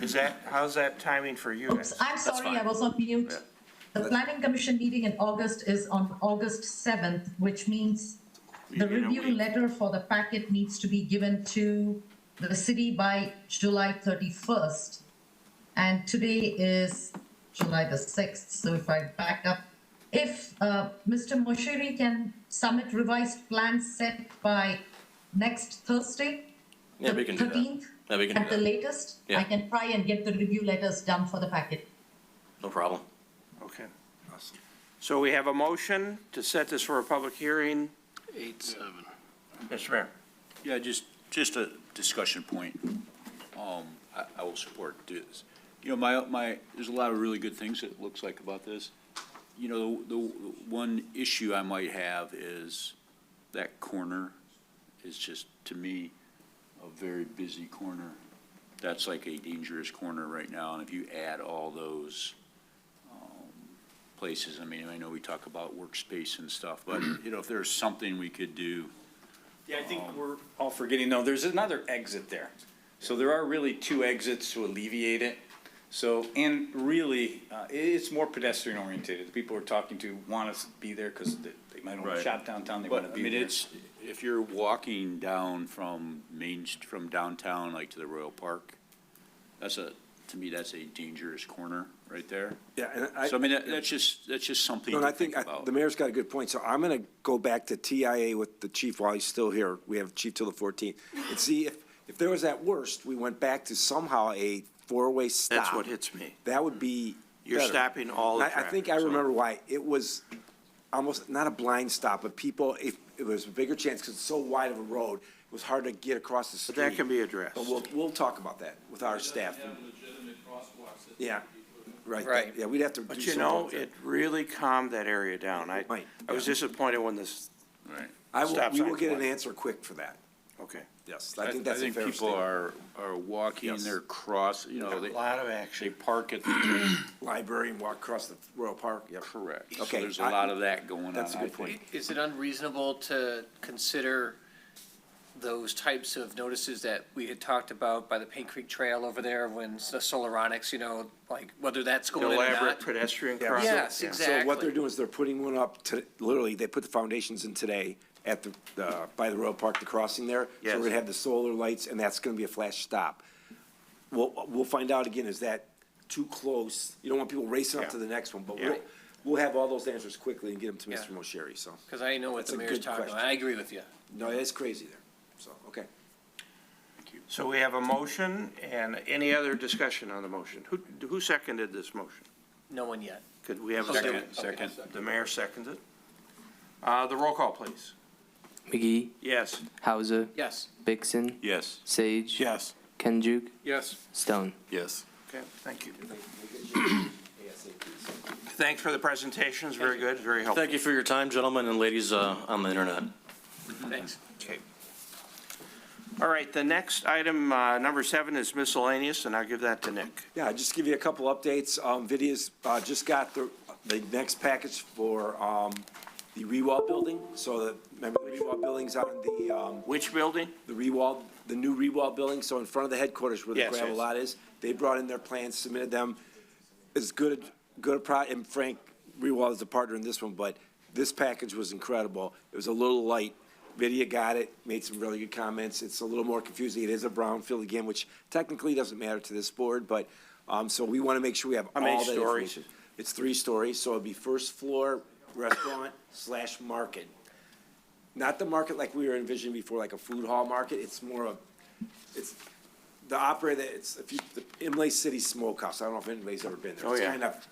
Is that, how's that timing for you guys? Oops, I'm sorry, I fine. was on mute. The planning commission meeting in August is on August seventh, which means the In a review week. letter for the packet needs to be given to the city by July thirty-first. And today is July the sixth, so if I back up, if, uh, Mr. Moshiri can submit revised plans set by next Thursday, Yeah, we can do that. thirteenth? Yeah, we can At do the that. latest, I Yeah. can try and get the review letters done for the packet. No problem. Okay. So we have a motion to set this for a public hearing. Eight, seven. Mr. Mayor. Yeah, just, just a discussion point. Um, I, I will support this. You know, my, my, there's a lot of really good things it looks like about this. You know, the, the one issue I might have is that corner is just, to me, a very busy corner. That's like a dangerous corner right now, and if you add all those, um, places, I mean, I know we talk about workspace and stuff, but, you know, if there's something we could do Yeah, I think we're all forgetting, though, there's another exit there. So there are really two exits to alleviate it. So, and really, uh, i- it's more pedestrian oriented. The people we're talking to want us to be there because they they might want to Right. shop downtown, they want But, to I be mean, there. it's, if you're walking down from Main, St- from downtown, like to the Royal Park, that's a, to me, that's a dangerous corner right there. Yeah, and So, I mean, I, that- that's just, that's just something no, and to I think think I- about. the mayor's got a good point, so I'm gonna go back to TIA with the chief while he's still here. We have chief till the fourteenth. And see, if, if there was at worst, we went back to somehow a four-way stop. That's what hits me. That would be You're better. stopping all the I- I think I traffic, so- remember why. It was almost, not a blind stop, but people, if, it was a bigger chance because it's so wide of a road, it was hard to get across the But street. that can be addressed. But we'll, we'll talk about that with our staff. Yeah, right. Right. Yeah, we'd have to do But you something know, with that. it really calmed that area down. I, Right. I was disappointed when this, Right. I will, stop we will signs get an went. answer quick for that. okay. Yes, I think that's a fair people statement. are, are walking, Yes. they're cross, you know, A they, lot of they action. park at the, Library and walk across the Royal Park, yep. correct. So Okay, there's a I- lot of that going on, that's a Uh, I good point. think. Is it unreasonable to consider those types of notices that we had talked about by the Paint Creek Trail over there when s- the Solaronics, you know, like whether that's going in or Elaborate not? pedestrian Yeah. crossing. Yes, Yeah. exactly. So what they're doing is they're putting one up to, literally, they put the foundations in today at the, uh, by the Royal Park, the crossing there. So Yes. we're gonna have the solar lights and that's gonna be a flash stop. We'll, we'll find out again, is that too close? You don't want people racing up Yeah. to the next one, but Yeah. we'll, we'll have all those answers quickly and get them to Mr. Yeah. Moshiri, so. Because I know what That's the a mayor's good talking about. question. I agree with you. No, it's crazy there, so, okay. So we have a motion and any other discussion on the motion? Who, who seconded this motion? No one yet. Could we have a Second, second? second. The mayor seconded. Uh, the roll call, please. McGee, Yes. Hauser, Yes. Vixen, Yes. Sage. Yes. Kenjuk, Yes. Stone. Yes. Okay, thank you. Thanks for the presentations, very good, very helpful. Thank you for your time, gentlemen and ladies uh, on the internet. Thanks. Okay. All right, the next item, uh, number seven, is miscellaneous, and I'll give that to Nick. Yeah, I'll just give you a couple updates. Um, Vidia's, uh, just got the, the next package for, um, the Rewall building. So the, remember the Rewall building's on the, um, Which building? the Rewall, the new Rewall building, so in front of the headquarters where the Yes, gravel yes. lot is. They brought in their plans, submitted them. As good, good a pro, and Frank Rewall is a partner in this one, but this package was incredible. It was a little light. Vidia got it, made some really good comments. It's a little more confusing. It is a brownfield again, which technically doesn't matter to this board, but, um, so we want to make sure we have How many all that stories? information. It's three stories, so it'd be first floor restaurant slash market not the market like we were envisioning before, like a food hall market, it's more of, it's, the operator, it's, if you, the Imlay City Smokehouse, I don't know if anybody's ever been there. Oh, yeah. It's kind of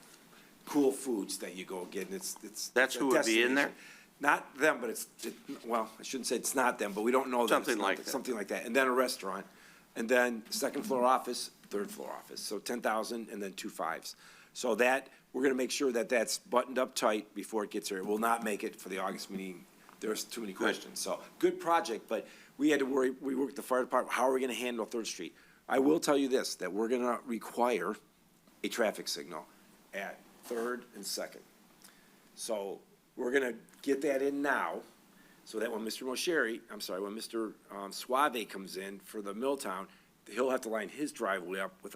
cool foods that you go get, and it's, it's. That's who would be in there? Not them, but it's, it- well, I shouldn't say it's not them, but we don't know them. It's Something not like th- that. Something like that, and then a restaurant, and then second floor office, third floor office, so ten thousand and then two fives. So that, we're gonna make sure that that's buttoned up tight before it gets here, it will not make it for the August meeting, there's too many questions, so, good project, but we had to worry, we worked the fire department, how are we gonna handle Third Street? I will tell you this, that we're gonna require a traffic signal at Third and Second. So we're gonna get that in now, so that when Mr. Mosheri, I'm sorry, when Mr. um, Suave comes in for the Milltown, he'll have to line his driveway up with